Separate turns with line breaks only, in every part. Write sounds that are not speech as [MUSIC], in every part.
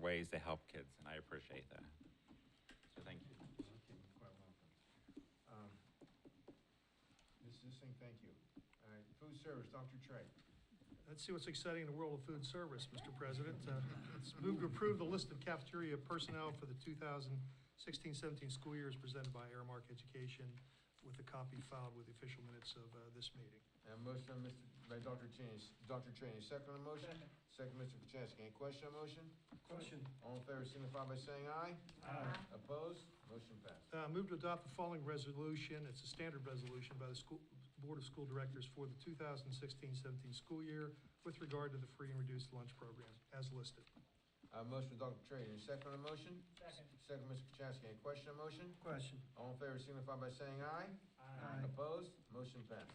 ways to help kids, and I appreciate that. So thank you.
Okay, you're quite welcome. Um, Ms. Singh, thank you. All right, food service, Dr. Trey.
Let's see what's exciting in the world of food service, Mr. President. Uh, It's moved to approve the list of cafeteria personnel for the 2016-17 school year as presented by Airmark Education with a copy filed with the official minutes of uh, this meeting.
I have a motion on Mr. by Dr. Cheney, Dr. Cheney, second on the motion? Second, Mr. Kaczynski. Any question on motion?
Question.
All in favor signify by saying aye.
Uh,
Aye.
Opposed? Motion passed.
Uh, Move to adopt the following resolution. It's a standard resolution by the school, Board of School Directors for the 2016-17 school year with regard to the free and reduced lunch program as listed.
I have a motion by Dr. Trey, Any second on the motion?
Second.
Second, Mr. Kaczynski. Any question on motion?
Question.
All in favor signify by saying aye. Opposed? Motion passed.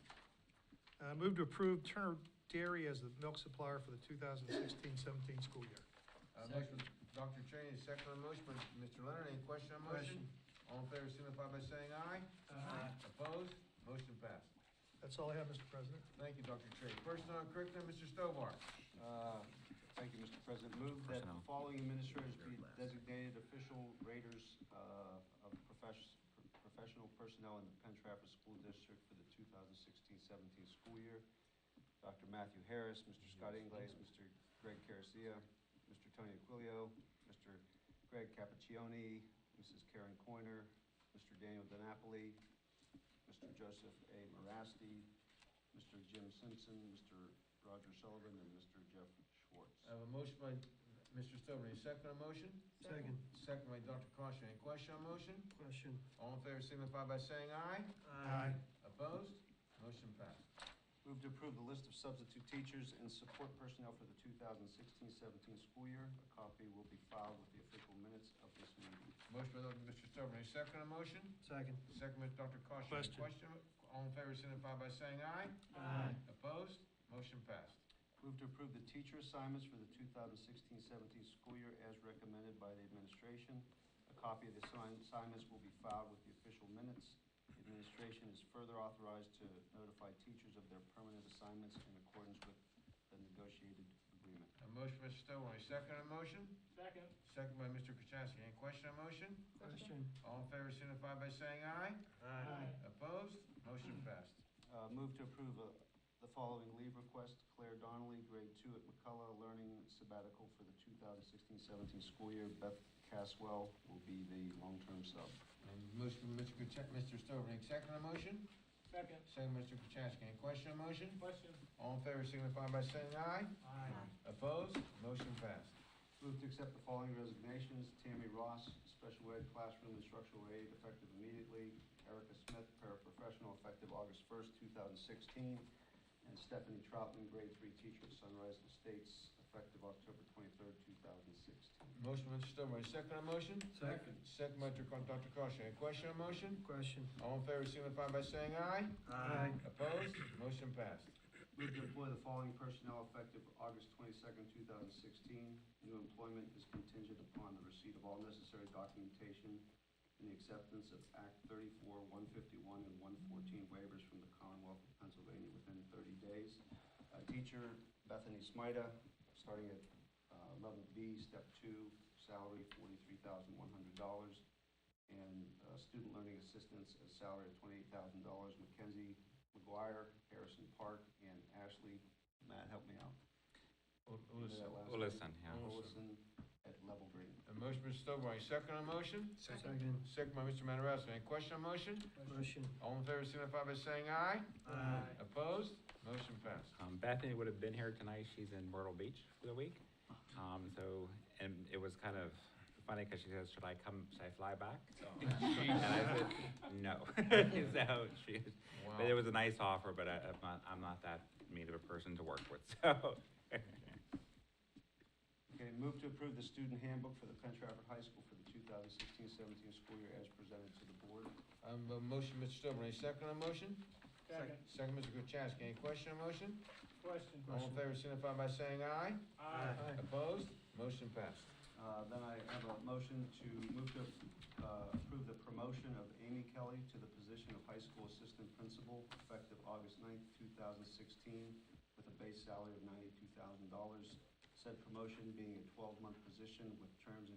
Uh, Move to approve Turner Dairy as the milk supplier for the 2016-17 school year.
I have a motion by Dr. Cheney, second on the motion by Mr. Leonard. Any question on motion? All in favor signify by saying aye.
Uh-huh.
Opposed? Motion passed.
That's all I have, Mr. President.
Thank you, Dr. Trey. Personnel and curriculum, Mr. Stovall.
Uh, Thank you, Mr. President. Move that the
Personnel.
following administrators be designated official raters uh, of profess- professional personnel in the Penn Trafford School District for the 2016-17 school year. Dr. Matthew Harris, Mr. Scott Inglaze, Mr. Greg Caricia, Mr. Tony Aquilio, Mr. Greg Cappuccioni, Mrs. Karen Coiner, Mr. Daniel DiNapoli, Mr. Joseph A. Marasty, Mr. Jim Simpson, Mr. Roger Sullivan, and Mr. Jeff Schwartz.
I have a motion by Mr. Stovall. Any second on motion?
Second.
Second by Dr. Caution. Any question on motion?
Question.
All in favor signify by saying aye.
Aye.
Opposed? Motion passed.
Move to approve the list of substitute teachers and support personnel for the 2016-17 school year. A copy will be filed with the official minutes of this meeting.
Motion by Dr. Mr. Stovall. Any second on motion?
Second.
Second by Dr. Caution.
Question.
All in favor signify by saying aye.
Aye.
Opposed? Motion passed.
Move to approve the teacher assignments for the 2016-17 school year as recommended by the administration. A copy of the assign- assignments will be filed with the official minutes. The administration is further authorized to notify teachers of their permanent assignments in accordance with the negotiated agreement.
A motion by Mr. Stovall. Any second on motion?
Second.
Second by Mr. Kaczynski. Any question on motion?
Question.
All in favor signify by saying aye.
Aye.
Opposed? Motion passed.
Uh, Move to approve uh, the following leave request. Claire Donnelly, grade two at McCullough, learning sabbatical for the 2016-17 school year. Beth Caswell will be the long-term sub.
And Um, motion by Mr. Kaczynski, Mr. Stovall. Any second on motion?
Second.
Second by Mr. Kaczynski. Any question on motion?
Question.
All in favor signify by saying aye.
Aye.
Opposed? Motion passed.
Move to accept the following resignations. Tammy Ross, special ed classroom instructional aide, effective immediately. Erica Smith, paraprofessional, effective August 1st, 2016. And Stephanie Troutman, grade three teacher at Sunrise Estates, effective October 23rd, 2016.
Motion by Mr. Stovall, second on motion?
Second.
Second by Dr. Con- Dr. Costo, any question on motion?
Question.
All in favor signify by saying aye.
Aye.
Opposed? Motion passed.
Move to employ the following personnel effective August 22nd, 2016. New employment is contingent upon the receipt of all necessary documentation and the acceptance of Act 34, 151, and 114 waivers from the Commonwealth of Pennsylvania within 30 days. Uh, Teacher Bethany Smida, starting at uh, level B, step two, salary $43,100. And uh, student learning assistance, a salary of $28,000. Mackenzie McGuire, Harrison Park, and Ashley, Matt, help me out. That last
Olson,
name?
yeah.
Olson at level grade.
A motion, Mr. Stovall, any second on motion?
Second.
Second by Mr. Matarazza, any question on motion?
Question.
All in favor signify by saying aye.
Aye.
Opposed? Motion passed.
Um, Bethany would have been here tonight. She's in Myrtle Beach for the week. Um, so, and it was kind of funny because she says, should I come, should I fly back?
Oh,
And I said, no. [LAUGHS] So she,
Wow.
but it was a nice offer, but I, I'm not, I'm not that mean of a person to work with, so. [LAUGHS]
Okay, move to approve the student handbook for the Penn Trafford High School for the 2016-17 school year as presented to the board.
I have a motion, Mr. Stovall, any second on motion?
Second.
Second, Mr. Kaczynski, any question on motion?
Question.
All in favor signify by saying aye.
Aye.
Opposed? Motion passed.
Uh, Then I have a motion to move to uh, approve the promotion of Amy Kelly to the position of high school assistant principal effective August 9th, 2016, with a base salary of $92,000, Said promotion being a twelve-month position with terms and